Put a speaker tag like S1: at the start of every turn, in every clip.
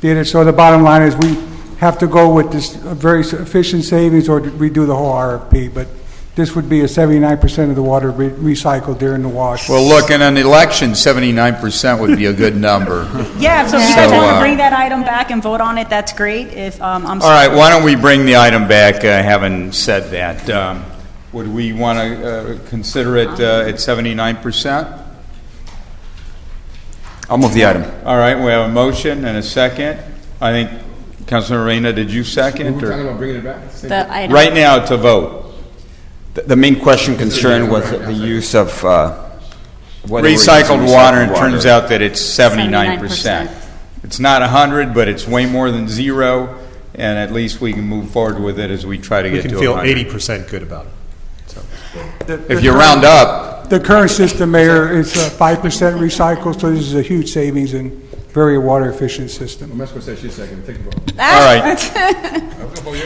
S1: did it. So the bottom line is, we have to go with this very efficient savings or redo the whole RFP, but this would be a 79% of the water re- recycled during the wash.
S2: Well, look, in an election, seventy-nine percent would be a good number.
S3: Yeah, so if you
S2: So,
S3: guys want
S2: uh,
S3: to bring that item back and vote on it, that's great. If, um, I'm.
S2: All right, why don't we bring the item back, uh, having said that? Um, Would we want to consider it uh, at seventy-nine percent?
S4: I'll move the item.
S2: All right, we have a motion and a second. I think, Councilor Reyna, did you second? or-
S5: about bringing it back?
S6: The item.
S2: Right now, to vote.
S4: The- The main question concerned was the use of, uh, whether we're using
S2: Recycled water, and it
S4: recycled
S2: turns out that it's seventy-nine percent.
S6: 79%.
S2: It's not hundred, but it's way more than zero, and at least we can move forward with it as we try to
S7: We
S2: get
S7: can
S2: to a
S7: feel
S2: hundred.
S7: 80% good about it.
S2: If you round up,
S1: The current system, Mayor, is uh, 5% recycled, so this is a huge savings and very water efficient system.
S5: Mesco said she's second, take a vote.
S2: all right,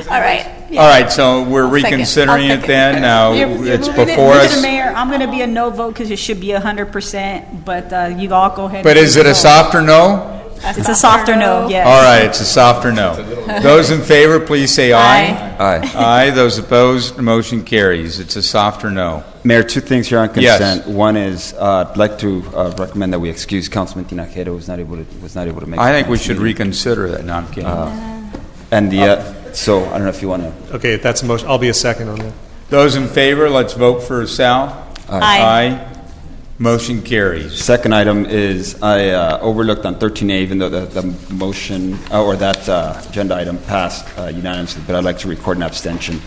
S6: All right.
S2: all right, so
S6: second.
S2: we're
S6: I'll
S2: reconsidering it
S6: second.
S2: then, now
S3: You're- you're
S2: Uh, it's
S3: looking at-
S2: before
S3: looking at
S2: us.
S3: the Mayor, I'm going to be a no vote because it should be 100%, but uh, you all go ahead.
S2: But
S3: and
S2: is it a
S3: vote.
S2: softer no?
S3: It's a softer no, yes.
S2: All right, it's a softer no. Those in favor, please say aye.
S4: Aye.
S2: Aye, those opposed, motion carries, it's a softer no.
S4: Mayor, two things here on
S2: Yes.
S4: consent. One is, uh, I'd like to uh, recommend that we excuse Councilman Tinajero, who's not able to, was not able to make.
S2: I
S4: it
S2: think we
S4: tonight's
S2: should
S4: meeting.
S2: reconsider that, no, I'm kidding.
S4: And the, uh, so, I don't know if you want to
S7: Okay, if that's a motion, I'll be a second on that.
S2: Those in favor, let's vote for Sal.
S3: Aye.
S2: Aye, motion carries.
S4: Second item is, I uh, overlooked on 13A, even though the, the motion, uh, or that uh, agenda item passed uh, unanimously, but I'd like to record an abstention.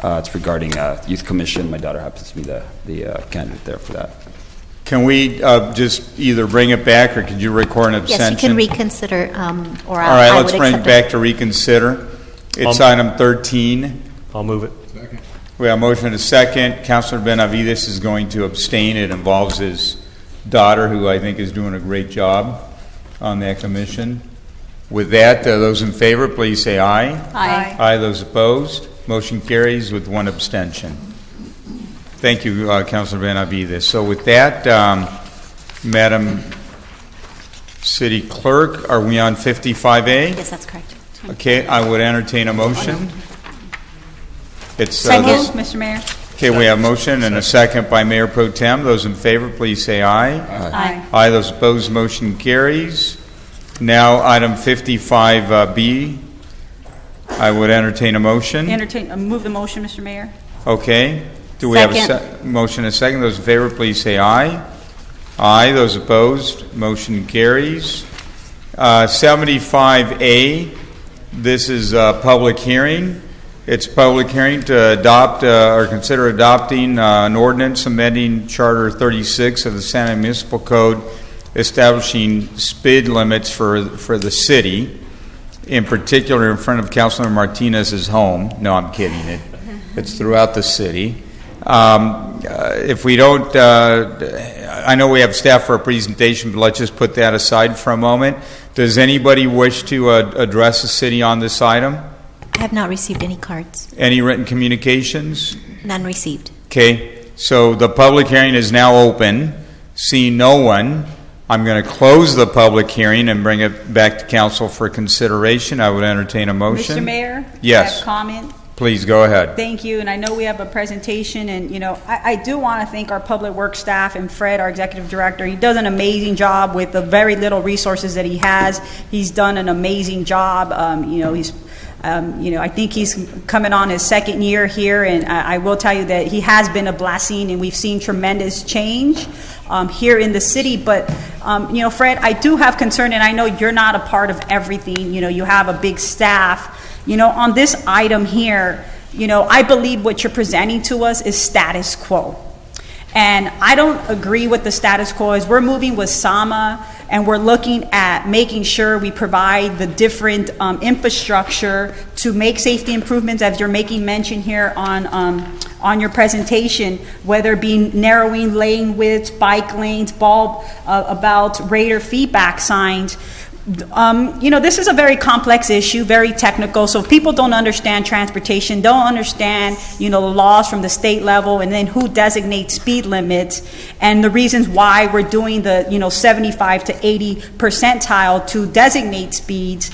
S4: Uh, It's regarding uh, Youth Commission, my daughter happens to be the, the uh, candidate there for that.
S2: Can we uh, just either bring it back, or could you record an abstention?
S8: Yes, you can reconsider, um, or
S2: All right,
S8: I I would
S2: let's bring it
S8: accept
S2: back
S8: it.
S2: to reconsider. It's
S7: Um,
S2: item 13.
S7: I'll move it.
S2: We have a motion and a second. Counselor Benavides is going to abstain. It involves his daughter, who I think is doing a great job on that commission. With that, uh, those in favor, please say aye.
S6: Aye.
S2: Aye, those opposed. Motion carries with one abstention. Thank you, uh, Counselor Benavides. So with that, um, Madam City Clerk, are we on 55A?
S8: Yes, that's correct.
S2: Okay, I would entertain a motion. It's, uh,
S3: Second,
S2: this-
S3: Mr. Mayor.
S2: okay, we have motion and a second by Mayor Pro Tem. Those in favor, please say aye.
S3: Aye.
S2: Aye, those opposed, motion carries. Now, item 55B, I would entertain a motion.
S3: Entertain, uh, move the motion, Mr. Mayor.
S2: Okay, do we have a
S6: Second.
S2: se- motion and a second? Those in favor, please say aye. Aye, those opposed, motion carries. Uh, 75A, this is a public hearing. It's a public hearing to adopt uh, or consider adopting uh, an ordinance amending Charter 36 of the San Diego Municipal Code establishing speed limits for, for the city, in particular in front of Councilor Martinez's home. No, I'm kidding. It, it's throughout the city. Um, uh, If we don't, uh, I know we have staff for a presentation, but let's just put that aside for a moment. Does anybody wish to uh, address the city on this item?
S8: I have not received any cards,
S2: Any written communications?
S8: none received.
S2: Okay, so the public hearing is now open. Seeing no one, I'm going to close the public hearing and bring it back to council for consideration. I would entertain a motion.
S3: Mr. Mayor? I
S2: Yes,
S3: have comment.
S2: please go ahead.
S3: Thank you, and I know we have a presentation, and, you know, I, I do want to thank our public works staff and Fred, our executive director. He does an amazing job with the very little resources that he has. He's done an amazing job, um, you know, he's, um, you know, I think he's coming on his second year here, and I, I will tell you that he has been a blessing, and we've seen tremendous change, um, here in the city, but, um, you know, Fred, I do have concern, and I know you're not a part of everything, you know, you have a big staff. You know, on this item here, you know, I believe what you're presenting to us is status quo. And I don't agree with the status quo is we're moving with SAMA and we're looking at making sure we provide the different um, infrastructure to make safety improvements as you're making mention here on, um, on your presentation, whether it be narrowing lane widths, bike lanes, bulb, uh, about radar feedback signs um, you know, this is a very complex issue, very technical. So if people don't understand transportation, don't understand, you know, the laws from the state level, and then who designates speed limits, and the reasons why we're doing the, you know, 75 to 80 percentile to designate speeds.